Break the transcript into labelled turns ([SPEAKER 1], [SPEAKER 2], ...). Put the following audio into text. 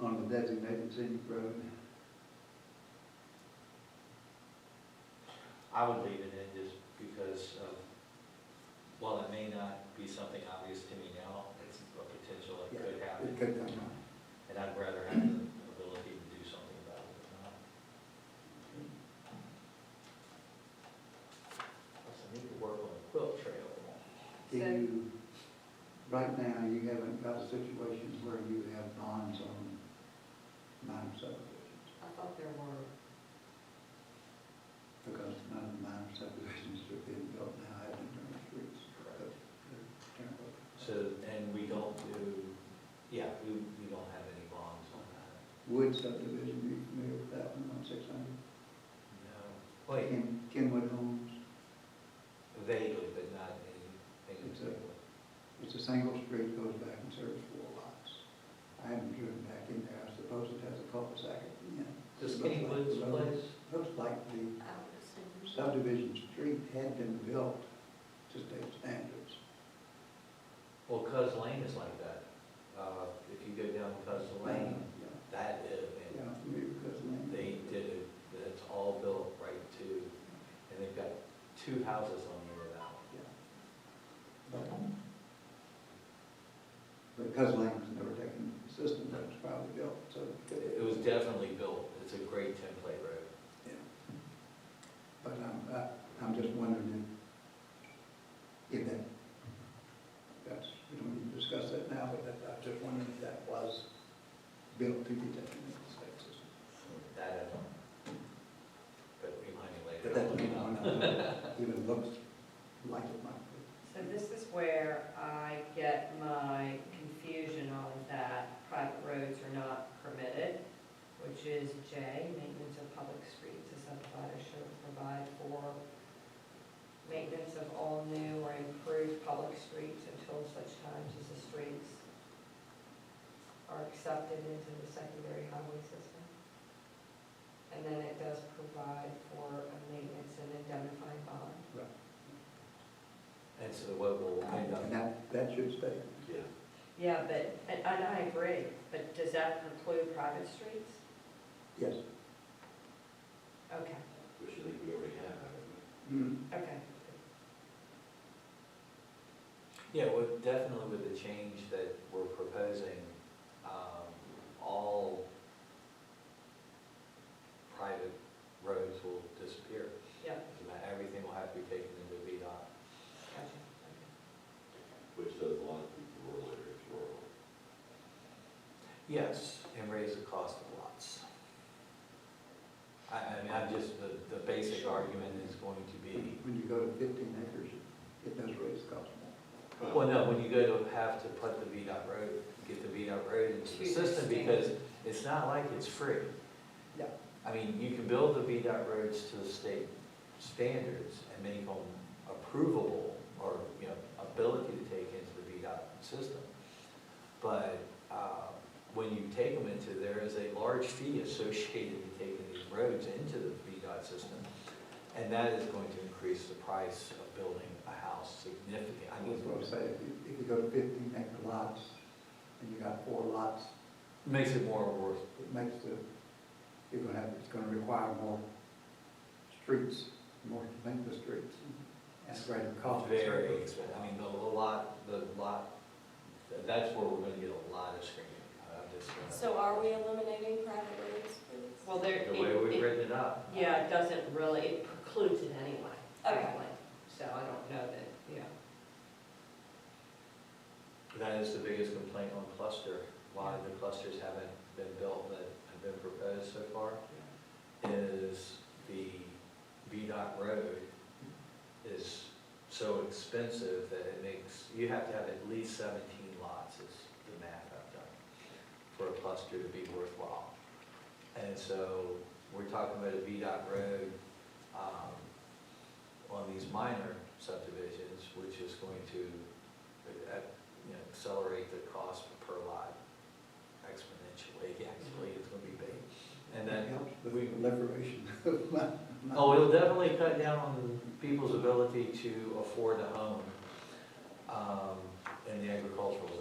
[SPEAKER 1] on designated scenic road.
[SPEAKER 2] I would leave it in just because of, while it may not be something obvious to me now, it's a potential it could
[SPEAKER 1] It
[SPEAKER 2] happen.
[SPEAKER 1] could come up.
[SPEAKER 2] And I'd rather have the ability to do something about it than not. Plus, I need to work on the quilt trail.
[SPEAKER 1] Do
[SPEAKER 3] So-
[SPEAKER 1] you, right now, you haven't got situations where you have bonds on minor subdivisions,
[SPEAKER 3] I thought there were,
[SPEAKER 1] because none of the minor subdivisions that are being built now have internal streets. but they're terrible.
[SPEAKER 2] So, and we don't do, yeah, we, we don't have any bonds on that.
[SPEAKER 1] Wood subdivision, you familiar with that one on six hundred?
[SPEAKER 2] No. Wait,
[SPEAKER 1] Ken, Kenwood Homes,
[SPEAKER 2] vaguely, but not anything. in
[SPEAKER 1] It's a-
[SPEAKER 2] particular.
[SPEAKER 1] it's a single street, goes back and serves four lots. I haven't driven back in there, I suppose it has a cul-de-sac at the end.
[SPEAKER 2] Does Kennywood's place?
[SPEAKER 1] Looks like the
[SPEAKER 3] I would assume.
[SPEAKER 1] subdivision street had been built to state standards.
[SPEAKER 2] Well, Cuz Lane is like that. Uh, if you go down Cuz Lane,
[SPEAKER 1] Yeah,
[SPEAKER 2] that is, and
[SPEAKER 1] Yeah, maybe because of land.
[SPEAKER 2] they did it, it's all built right to, and they've got two houses on the other one.
[SPEAKER 1] Yeah. But- But because land was never taken into the system, that was probably built, so.
[SPEAKER 2] It it was definitely built, it's a great template road.
[SPEAKER 1] Yeah. But I'm, I- I'm just wondering if, if that, that's, we don't need to discuss that now, but that, I'm just wondering if that was built to be taken into the state system.
[SPEAKER 2] That, I don't, but remind me later.
[SPEAKER 1] But that
[SPEAKER 2] I'll look it up.
[SPEAKER 1] even looks like it might be.
[SPEAKER 3] So this is where I get my confusion on that private roads are not permitted, which is J, maintenance of public streets, a subdivider shall provide for maintenance of all new or improved public streets until such times as the streets are accepted into the secondary highway system. And then it does provide for a maintenance and indemnifying bond.
[SPEAKER 2] And so what will end up,
[SPEAKER 1] And that, that should stay.
[SPEAKER 2] yeah.
[SPEAKER 3] Yeah, but, and and I agree, but does that include private streets?
[SPEAKER 1] Yes.
[SPEAKER 3] Okay,
[SPEAKER 4] Which I think we already have, haven't we?
[SPEAKER 2] Mm-hmm.
[SPEAKER 3] okay.
[SPEAKER 2] Yeah, well, definitely with the change that we're proposing, um, all private roads will disappear.
[SPEAKER 3] Yep.
[SPEAKER 2] And that Everything will have to be taken into VDOT.
[SPEAKER 3] Gotcha.
[SPEAKER 4] Which does a lot of people rural areas rural.
[SPEAKER 2] Yes, and raise the cost of lots. I, I mean, I'm just, the, the basic argument is going to be,
[SPEAKER 1] When you go to fifteen acres, it does raise costs more.
[SPEAKER 2] well, no, when you go to have to put the VDOT road, get the VDOT road into the system, because it's not like it's free.
[SPEAKER 1] Yeah.
[SPEAKER 2] I mean, you can build the VDOT roads to the state standards and make them approvable or, you know, ability to take into the VDOT system. But, uh, when you take them into, there is a large fee associated with taking these roads into the VDOT system. And that is going to increase the price of building a house significant, I mean,
[SPEAKER 1] That's what I say, if you, if you go to fifteen acre lots, and you got four lots,
[SPEAKER 2] it makes it more worth,
[SPEAKER 1] it makes the, you're gonna have, it's gonna require more streets, more to link the streets, and greater cost.
[SPEAKER 2] Mm-hmm. Very expensive, I mean, the lot, the lot, that's where we're gonna get a lot of screening, I'm just. uh, gonna-
[SPEAKER 5] So are we eliminating private roads? please?
[SPEAKER 3] Well, there,
[SPEAKER 2] The way we've
[SPEAKER 3] it, it,
[SPEAKER 2] written it up.
[SPEAKER 3] yeah, it doesn't really, it precludes it anyway.
[SPEAKER 5] Okay.
[SPEAKER 3] frankly. So I don't know that, yeah.
[SPEAKER 2] That is the biggest complaint on cluster, why the clusters haven't been built that have been proposed so far, is the VDOT road is so expensive that it makes, you have to have at least seventeen lots is the math I've done for a cluster to be worthwhile. And so we're talking about a VDOT road, um, on these minor subdivisions, which is going to, uh, you know, accelerate the cost per lot exponentially, actually, it's gonna be big. And then
[SPEAKER 1] It helps with
[SPEAKER 2] we-
[SPEAKER 1] proliferation of my. my-
[SPEAKER 2] Oh, it'll definitely cut down on people's ability to afford a home um, in the agricultural